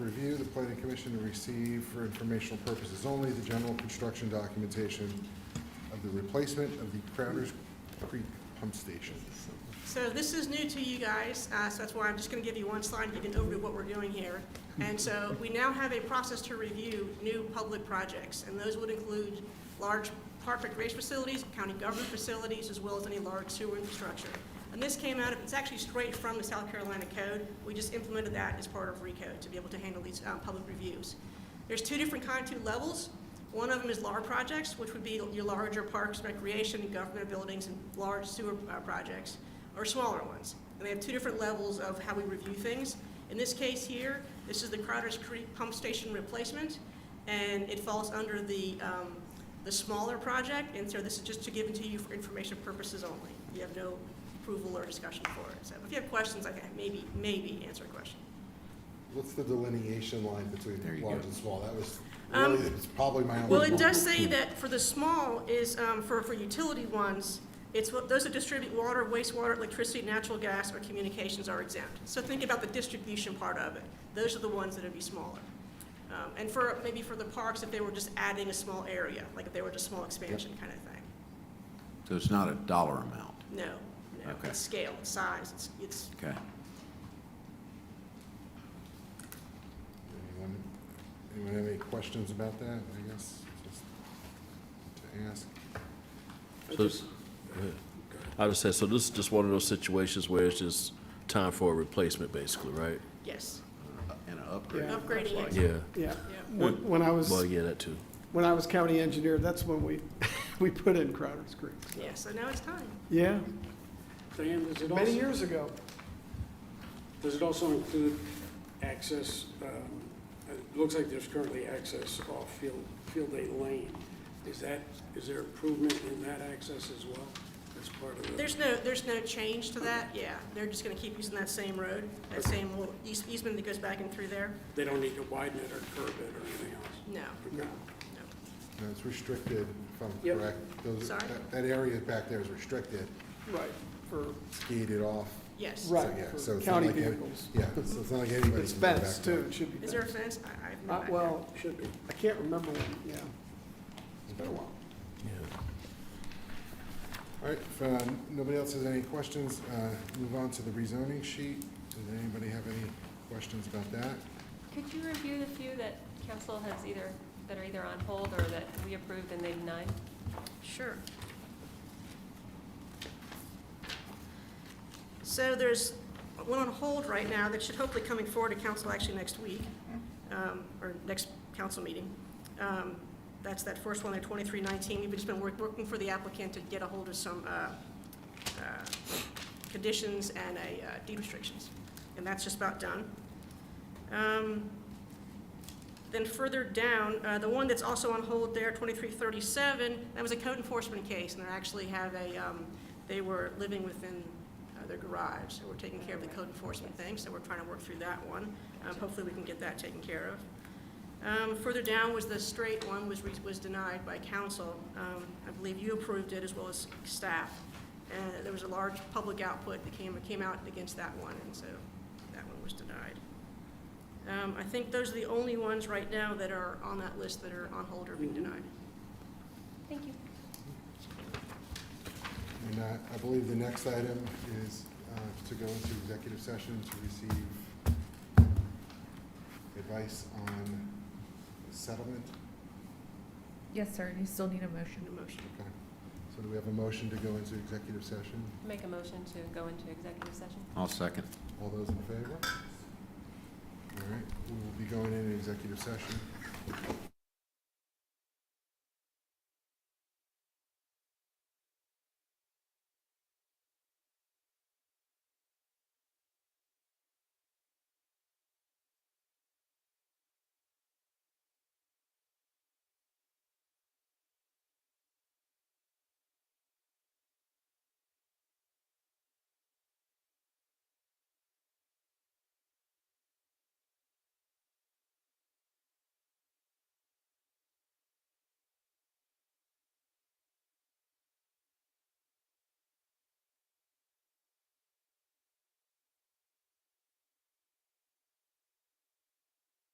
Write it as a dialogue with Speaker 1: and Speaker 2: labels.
Speaker 1: Review the planning commission to receive for informational purposes only the general construction documentation of the replacement of the Crowder's Creek pump station.
Speaker 2: So this is new to you guys, uh, so that's why I'm just going to give you one slide, and you can overview what we're doing here. And so we now have a process to review new public projects, and those would include large park recreation facilities, county government facilities, as well as any large sewer infrastructure. And this came out of, it's actually straight from the South Carolina Code. We just implemented that as part of RECO to be able to handle these uh, public reviews. There's two different kind, two levels. One of them is LAR projects, which would be your larger parks, recreation, government buildings, and large sewer uh, projects, or smaller ones. And they have two different levels of how we review things. In this case here, this is the Crowder's Creek Pump Station replacement, and it falls under the, um, the smaller project, and so this is just to give it to you for information purposes only. You have no approval or discussion for it. So if you have questions, I can maybe, maybe answer a question.
Speaker 1: What's the delineation line
Speaker 3: There
Speaker 1: between
Speaker 3: you
Speaker 1: large
Speaker 3: go.
Speaker 1: and small? That was
Speaker 2: Um,
Speaker 1: really, it's probably my only.
Speaker 2: Well, it does say that for the small is, um, for, for utility ones, it's what, those that distribute water, wastewater, electricity, natural gas, or communications are exempt. So think about the distribution part of it. Those are the ones that would be smaller. Um, and for, maybe for the parks, if they were just adding a small area, like if they were just small expansion kind of thing.
Speaker 3: So it's not a dollar amount,
Speaker 2: No, no,
Speaker 3: Okay.
Speaker 2: it's scale, it's size, it's, it's,
Speaker 3: okay?
Speaker 1: Anyone anyone have any questions about that, I guess, just to ask?
Speaker 4: So it's- I understand, so this is just one of those situations where it's just time for a replacement, basically, right?
Speaker 2: yes,
Speaker 3: And an upgrade.
Speaker 5: Yeah.
Speaker 2: Upgrading
Speaker 3: looks
Speaker 2: it.
Speaker 3: like.
Speaker 4: Yeah,
Speaker 5: Yeah,
Speaker 2: yeah.
Speaker 5: when when I
Speaker 4: well,
Speaker 5: was,
Speaker 4: yeah, that too.
Speaker 5: when I was county engineer, that's when we, we put in Crowder's Creek. so.
Speaker 2: Yeah, so now it's time.
Speaker 5: Yeah,
Speaker 6: Dan, does it
Speaker 5: many
Speaker 6: also,
Speaker 5: years ago.
Speaker 6: does it also include access, um, it looks like there's currently access off Field, Field Day Lane. Is that, is there improvement in that access as well as part of the?
Speaker 2: There's no, there's no change to that, yeah. They're just gonna keep using that same road, that same little eas- easement that goes back in through there.
Speaker 6: They don't need to widen it or curb it or anything else?
Speaker 2: No,
Speaker 6: Okay.
Speaker 2: no.
Speaker 1: No, it's restricted, if I'm
Speaker 6: Yep.
Speaker 1: correct. Those-
Speaker 2: Sorry?
Speaker 1: that- That area back there is restricted,
Speaker 5: Right, for,
Speaker 1: it's gated off.
Speaker 2: Yes.
Speaker 1: So,
Speaker 5: Right,
Speaker 1: yeah,
Speaker 5: for
Speaker 1: so it's not
Speaker 5: county
Speaker 1: like any-
Speaker 5: vehicles.
Speaker 1: Yeah, so it's not like anybody
Speaker 5: it's
Speaker 1: can go back
Speaker 5: fenced
Speaker 1: there.
Speaker 5: too, it should be
Speaker 2: Is there a
Speaker 5: fenced.
Speaker 2: fence? I, I've
Speaker 5: Uh,
Speaker 2: not.
Speaker 5: Well,
Speaker 6: Should be.
Speaker 5: I can't remember when, yeah.
Speaker 1: It's been a while.
Speaker 4: Yeah.
Speaker 1: All right, if uh, nobody else has any questions, uh, move on to the rezoning sheet. Does anybody have any questions about that?
Speaker 7: Could you review the few that council has either, that are either on hold or that we approved and they denied?
Speaker 2: Sure. So there's one on hold right now that should hopefully coming forward to council actually next week, um, or next council meeting. Um, That's that first one, there, 2319. We've just been work- working for the applicant to get a hold of some uh, uh, conditions and a uh, deed restrictions, and that's just about done. Um, then further down, uh, the one that's also on hold there, 2337, that was a code enforcement case, and they actually have a, um, they were living within uh, their garage, so we're taking care of the code enforcement thing, so we're trying to work through that one. Um, Hopefully, we can get that taken care of. Um, Further down was the straight one, was re- was denied by council. Um, I believe you approved it as well as staff. And there was a large public output that came, came out against that one, and so that one was denied. Um, I think those are the only ones right now that are on that list that are on hold or being denied.
Speaker 7: Thank you.
Speaker 1: And uh, I believe the next item is uh, to go into executive session to receive advice on settlement.
Speaker 8: Yes, sir, you still need a motion.
Speaker 2: Need a motion.
Speaker 1: Okay. So do we have a motion to go into executive session?
Speaker 7: Make a motion to go into executive session?
Speaker 3: I'll second.
Speaker 1: All those in favor? All right, we will be going into executive session.